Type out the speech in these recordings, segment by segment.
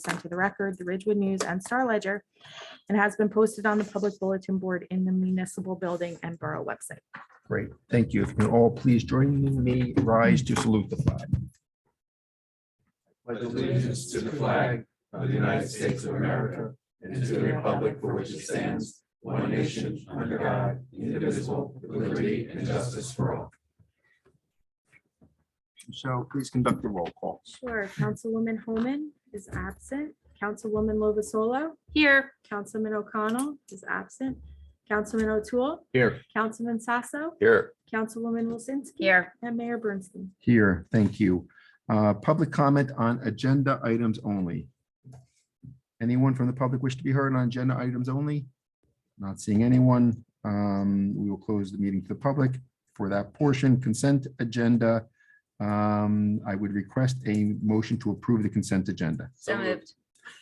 sent to the record, the Ridgewood News and Star Ledger, and has been posted on the public bulletin board in the municipal building and borough website. Great, thank you. If you can all please join me, rise to salute the flag. pledge allegiance to the flag of the United States of America and to the republic for which it stands, one nation, under God, indivisible, with liberty and justice for all. So please conduct the roll call. Sure. Councilwoman Homan is absent. Councilwoman Lovasolo? Here. Councilman O'Connell is absent. Councilman O'Toole? Here. Councilman Sasso? Here. Councilwoman Wilsinski? Here. And Mayor Bernstein. Here, thank you. Uh, Public comment on agenda items only. Anyone from the public wish to be heard on agenda items only? Not seeing anyone. Um, We will close the meeting to the public for that portion consent agenda. um, I would request a motion to approve the consent agenda. So moved.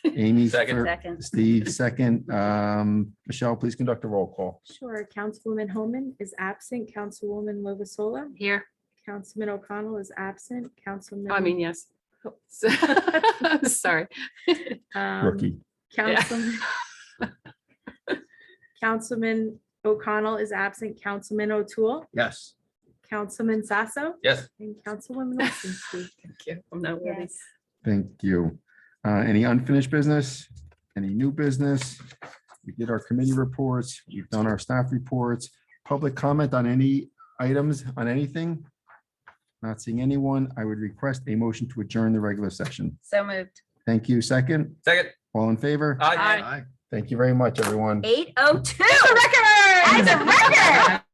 Amy. Second. fir- Second. Steve, second. Um, Michelle, please conduct a roll call. Sure. Councilwoman Homan is absent. Councilwoman Lovasolo? Here. Councilman O'Connell is absent. Councilman. I mean, yes. Sorry. um, Rookie. Yeah. Councilman. Councilman O'Connell is absent. Councilman O'Toole, Yes. Councilman Sasso, Yes. and Councilwoman Wilsinski. Thank you. I'm not worthy. Thank you. Uh, Any unfinished business? Any new business? We did our committee reports. We've done our staff reports. Public comment on any items, on anything? Not seeing anyone. I would request a motion to adjourn the regular session. So moved. Thank you. Second, Second. all in favor? Aye. Thank you very much, everyone. Eight oh two. It's a record. That's a record.